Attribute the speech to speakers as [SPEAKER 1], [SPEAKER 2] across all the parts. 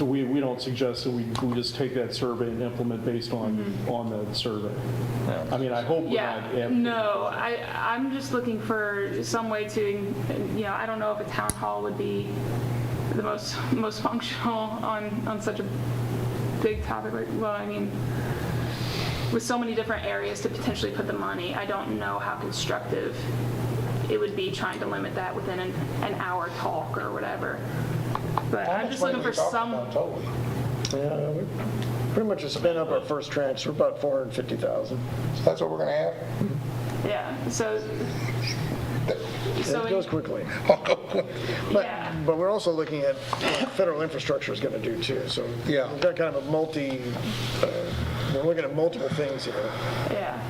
[SPEAKER 1] we, we don't suggest that we, we just take that survey and implement based on, on that survey. I mean, I hope we're not.
[SPEAKER 2] Yeah,
[SPEAKER 1] am-
[SPEAKER 2] no, I, I'm just looking for some way to, you know, I don't know if a town hall would be the most, most functional on, on such a big topic, like, well, I mean, with so many different areas to potentially put the money, I don't know how constructive it would be trying to limit that within an, an hour talk or whatever. But
[SPEAKER 3] How
[SPEAKER 2] I'm
[SPEAKER 3] much
[SPEAKER 2] just
[SPEAKER 3] money
[SPEAKER 2] looking
[SPEAKER 3] we
[SPEAKER 2] for
[SPEAKER 3] talking
[SPEAKER 2] some.
[SPEAKER 3] about Totally.
[SPEAKER 4] Yeah, we pretty much have spent up our first tranche, we're about 450,000.
[SPEAKER 3] So that's what we're gonna have?
[SPEAKER 2] Yeah, so. so
[SPEAKER 4] It goes quickly. But,
[SPEAKER 2] Yeah.
[SPEAKER 4] but we're also looking at what federal infrastructure is going to do too, so.
[SPEAKER 3] Yeah.
[SPEAKER 4] We've got kind of a multi, uh, we're looking at multiple things here.
[SPEAKER 2] Yeah,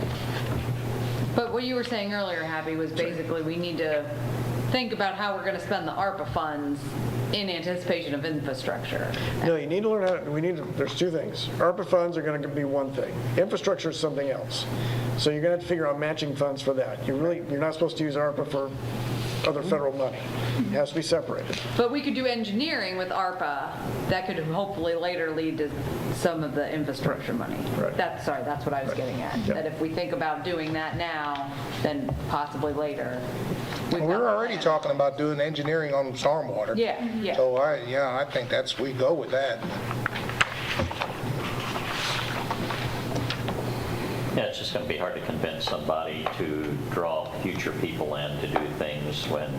[SPEAKER 5] But what you were saying earlier, Happy, was basically we need to think about how we're going to spend the ARPA funds in anticipation of infrastructure.
[SPEAKER 4] No, you need to learn how, we need, to there's two things. ARPA funds are going to be one thing. Infrastructure is something else. So you're going to have to figure out matching funds for that. You really, you're not supposed to use ARPA for other federal money. It has to be separated.
[SPEAKER 5] But we could do engineering with ARPA that could hopefully later lead to some of the infrastructure money.
[SPEAKER 4] Right.
[SPEAKER 5] That's, sorry, that's what I was getting at.
[SPEAKER 4] Yeah.
[SPEAKER 5] That if we think about doing that now, then possibly later. we've got-
[SPEAKER 3] We're already talking about doing engineering on stormwater.
[SPEAKER 5] Yeah, yeah.
[SPEAKER 3] So I, yeah, I think that's, we go with that.
[SPEAKER 6] Yeah, it's just going to be hard to convince somebody to draw future people in to do things when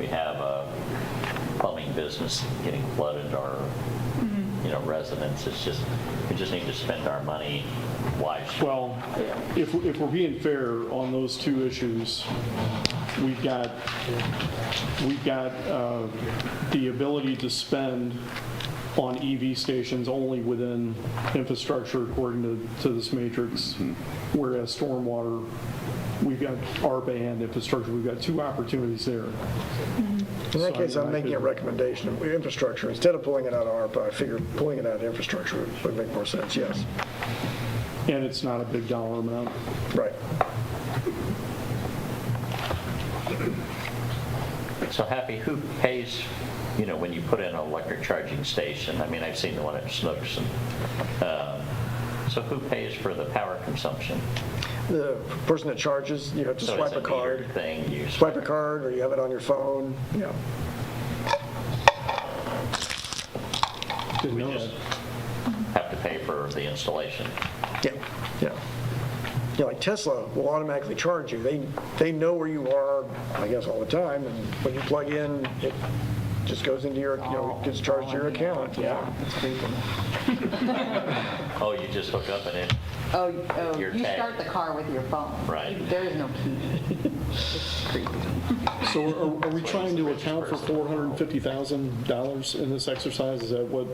[SPEAKER 6] we have a plumbing business getting flooded or, you know, residents. It's just, we just need to spend our money wisely.
[SPEAKER 1] Well, if, if we're being fair on those two issues, we've got, we've got uh, the ability to spend on EV stations only within infrastructure according to, to this matrix, whereas stormwater, we've got ARPA and infrastructure, we've got two opportunities there.
[SPEAKER 4] In that case,
[SPEAKER 1] So, I mean,
[SPEAKER 4] I'm
[SPEAKER 1] I
[SPEAKER 4] making a
[SPEAKER 1] could-
[SPEAKER 4] recommendation of infrastructure. Instead of pulling it out of ARPA, I figure pulling it out of infrastructure would make more sense, yes.
[SPEAKER 1] And it's not a big dollar amount.
[SPEAKER 4] Right.
[SPEAKER 6] So Happy, who pays, you know, when you put in an electric charging station? I mean, I've seen the one at Snooks. and, um, So who pays for the power consumption?
[SPEAKER 4] The person that charges, you have to
[SPEAKER 6] So
[SPEAKER 4] swipe a
[SPEAKER 6] it's metered
[SPEAKER 4] card.
[SPEAKER 6] Thing you
[SPEAKER 4] Swipe a card, or you have it on your phone, yeah.
[SPEAKER 1] Didn't
[SPEAKER 6] We
[SPEAKER 1] know
[SPEAKER 6] just
[SPEAKER 1] that.
[SPEAKER 6] have to pay for the installation.
[SPEAKER 4] Yeah, yeah. Yeah, like Tesla will automatically charge you. They, they know where you are, I guess, all the time, and when you plug in, it just goes into your, you know, gets charged to your account, yeah.
[SPEAKER 6] Oh, you just hook up and it,
[SPEAKER 5] Oh, oh,
[SPEAKER 6] Your
[SPEAKER 5] you
[SPEAKER 6] tag.
[SPEAKER 5] start the car with your phone.
[SPEAKER 6] Right.
[SPEAKER 5] There is no key. It's creepy.
[SPEAKER 1] So are- are we trying to account for $450,000 in this exercise? Is that what?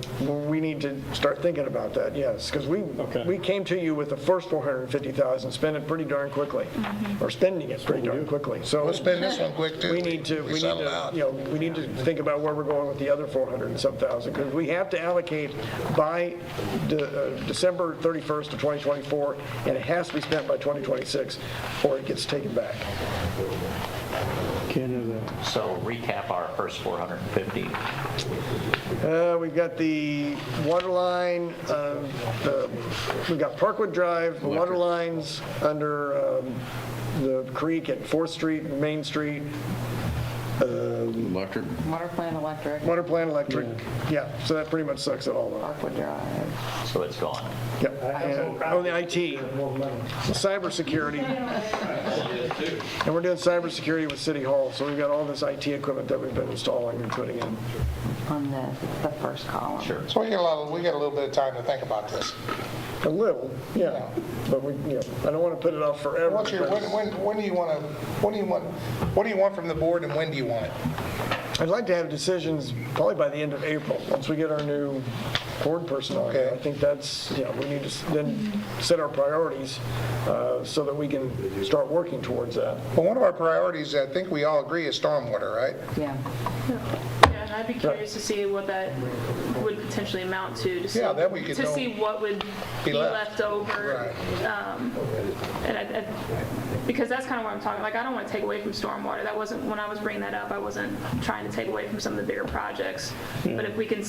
[SPEAKER 4] We need to start thinking about that, yes, because we,
[SPEAKER 1] Okay.
[SPEAKER 4] we came to you with the first 450,000, spent it pretty darn quickly, or spending it pretty darn quickly. So
[SPEAKER 3] We'll spend this one quick too.
[SPEAKER 4] we need to, we need
[SPEAKER 3] settle
[SPEAKER 4] to,
[SPEAKER 3] out.
[SPEAKER 4] you know, we need to think about where we're going with the other 400 and some thousand, because we have to allocate by De- uh, December 31st of 2024, and it has to be spent by 2026, or it gets taken back.
[SPEAKER 1] Can't have that.
[SPEAKER 6] so recap our first 450.
[SPEAKER 4] Uh, We've got the water line, uh, the- we've got Parkwood Drive, the water lines under um, the creek at 4th Street, and Main Street,
[SPEAKER 7] Electric,
[SPEAKER 5] Water plant, electric,
[SPEAKER 4] water plant, electric, yeah, so that pretty much sucks it all up.
[SPEAKER 5] Parkwood Drive.
[SPEAKER 6] So it's gone.
[SPEAKER 4] Yep. And On the IT, cybersecurity. And we're doing cybersecurity with City Hall, so we've got all this IT equipment that we've been installing and putting in.
[SPEAKER 5] on this, it's the first column.
[SPEAKER 6] Sure.
[SPEAKER 3] So we get a lot, of- we get a little bit of time to think about this.
[SPEAKER 4] A little, yeah, but we, you know, I don't want to put it off forever.
[SPEAKER 3] What's your, when,
[SPEAKER 4] because
[SPEAKER 3] when, when do you wanna, when do you want, what do you want from the board and when do you want it?
[SPEAKER 4] I'd like to have decisions probably by the end of April, once we get our new board person on here.
[SPEAKER 3] Okay.
[SPEAKER 4] I think that's, yeah, we need to s- then set our priorities uh, so that we can start working towards that.
[SPEAKER 3] Well, one of our priorities, I think we all agree, is stormwater, right?
[SPEAKER 5] Yeah.
[SPEAKER 2] yeah, and I'd be curious to see what that would potentially amount to, to see.
[SPEAKER 3] Yeah, that we could
[SPEAKER 2] To
[SPEAKER 3] know.
[SPEAKER 2] see what would
[SPEAKER 3] Be
[SPEAKER 2] be
[SPEAKER 3] left.
[SPEAKER 2] left over. um, And I, I- because that's kind of what I'm talking, like, I don't want to take away from
[SPEAKER 3] Mm.
[SPEAKER 2] stormwater. That wasn't, when I was bringing that up, I wasn't trying to take away from some of the bigger projects. But if we can